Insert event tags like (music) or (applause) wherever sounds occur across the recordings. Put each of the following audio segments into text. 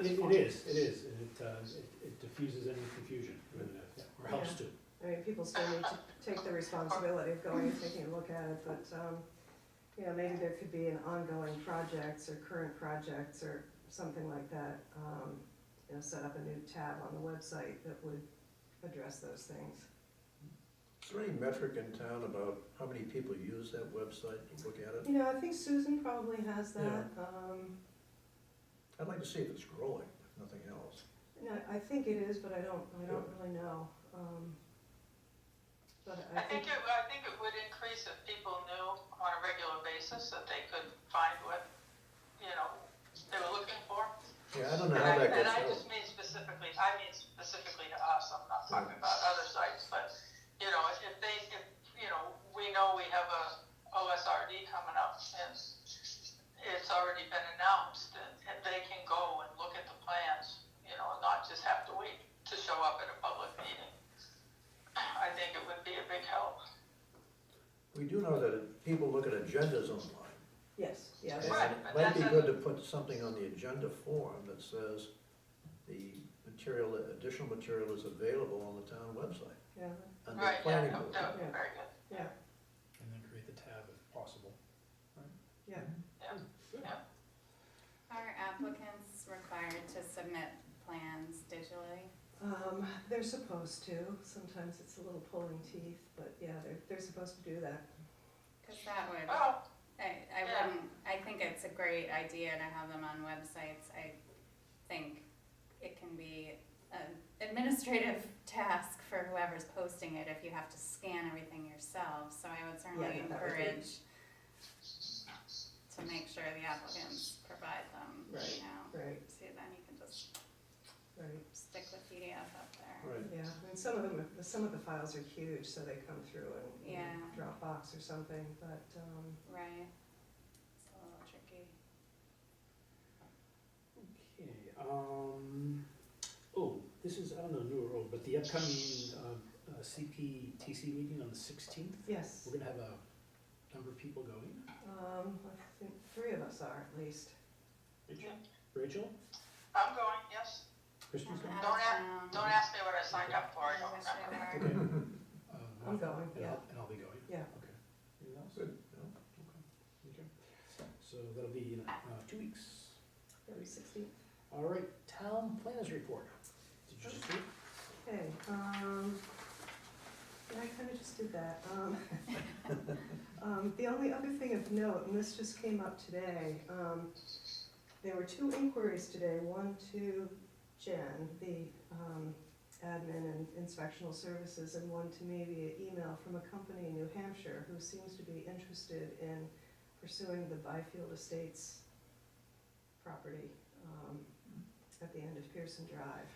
is, it is, and it, uh, it- it diffuses any confusion, uh, or helps to. I mean, people still need to take the responsibility of going and taking a look at it, but, um, you know, maybe there could be an ongoing projects or current projects or something like that. Um, you know, set up a new tab on the website that would address those things. Is there any metric in town about how many people use that website to look at it? You know, I think Susan probably has that. Um, I'd like to see if it's growing, if nothing else. no, I think it is, but I don't, I don't really know. Um, but I I think think, it, I think it would increase if people knew on a regular basis that they could find what, you know, they were looking for. Yeah, I don't know And how I, that and I gets just out. mean specifically, I mean specifically to us, I'm Mm. not talking about other sites, but, you know, if if they, if, you know, we know we have a OSRD coming up and it's already been announced and, and they can go and look at the plans, you know, and not just have to wait to show up at a public meeting. I think it would be a big help. We do know that it- people look at agendas online. yes, yeah, and that's- Right, It but might be that's good a- to put something on the agenda form that says the material, additional material is available on the town website, yeah, under Right, yeah, planning that board. that would be very good. yeah, And then create the tab if possible. yeah. Are applicants required to submit plans digitally? Um, they're supposed to, sometimes it's a little pulling teeth, but yeah, they're, they're supposed to do that. Because that would, I, Well, Oh, I Yeah. wouldn't, I think it's a great idea to have them on websites. I think it can be an administrative (laughs) task for whoever's posting it if you have to scan everything yourself. So I would certainly Yeah, that would be- encourage to make sure the applicants provide them, Right. you know. Right, So then you can just right, stick the PDF up there. Right, yeah, and some of them, are- some of the files are huge, so they come through in in Yeah. Dropbox or something, but, um, Right. It's a little tricky. Okay, um, oh, this is, I don't know, new or old, but the upcoming, um, uh, CPTC meeting on the sixteenth, yes. we're gonna have a number of people going. Um, I think three of us are at least. Rachel, I'm going, yes. Kristen's going? Out of Don't ask- town. Don't Mm-hmm. ask me what I signed up for, I don't Yes, they remember. were. (laughs) Okay. Uh, I'm going, and yeah, I'll- And I'll be going? Yeah. Okay. Anything else? good, no? Okay. Okay. So that'll be in, uh, two weeks. maybe sixteen. All right, town planners report. Did you just do it? Okay, um, yeah, I kinda just did that, um. (laughs) Um, the only other thing of note, and this just came up today, um, there were two inquiries today, one to Jen, the, um, admin and inspectional services, and one to me via email from a company in New Hampshire who seems to be interested in pursuing the Byfield Estates property, um, at the end of Pearson Drive.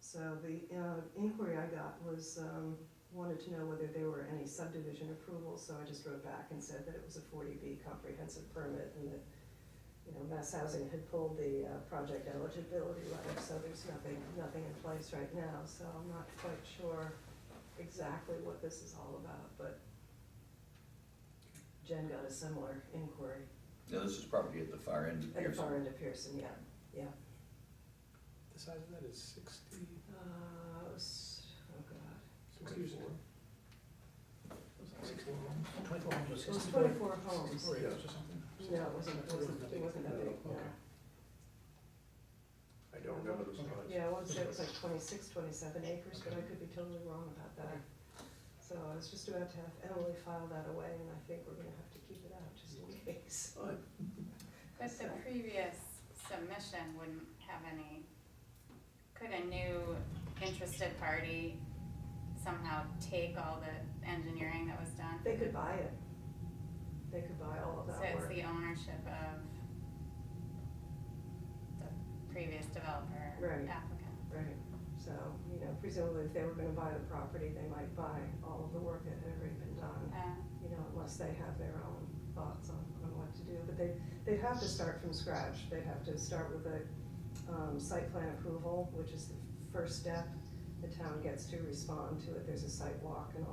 So the uh, inquiry I got was, um, wanted to know whether there were any subdivision approvals, so I just wrote back and said that it was a forty B comprehensive permit and that, you know, Mass Housing had pulled the uh, project eligibility letter, so there's nothing, nothing in place right now, so I'm not quite sure exactly what this is all about, but Jen got a similar inquiry No, this is probably at the far end of at the Pearson. far end of Pearson, yeah. The size of that is sixty, Uh, it was, oh god. sixty-four? Sixty-four Twenty-four hundred It was twenty-four homes. Or acres or something? No, it wasn't, it wasn't, it wasn't that big, no. Okay. I don't remember the size. Yeah, I want to say it was like 26, 27 acres, but I could be totally wrong about that. So I was just about to have Emily file that away, and I think we're gonna have to keep it out just in case. Fine. But the So- previous submission wouldn't have any, could a new interested party somehow take all the engineering that was done? They could buy it. They could buy all of So that it's work. the ownership of the previous developer Right. applicant. Right, so, you know, presumably if they were gonna buy the property, they might buy all of the work that had already been done, Uh, you know, unless they have their own thoughts on, on what to do. But they, they'd have to start from scratch. They'd have to start with a um, site plan approval, which is the first step. The town gets to respond to it, there's a site walk and all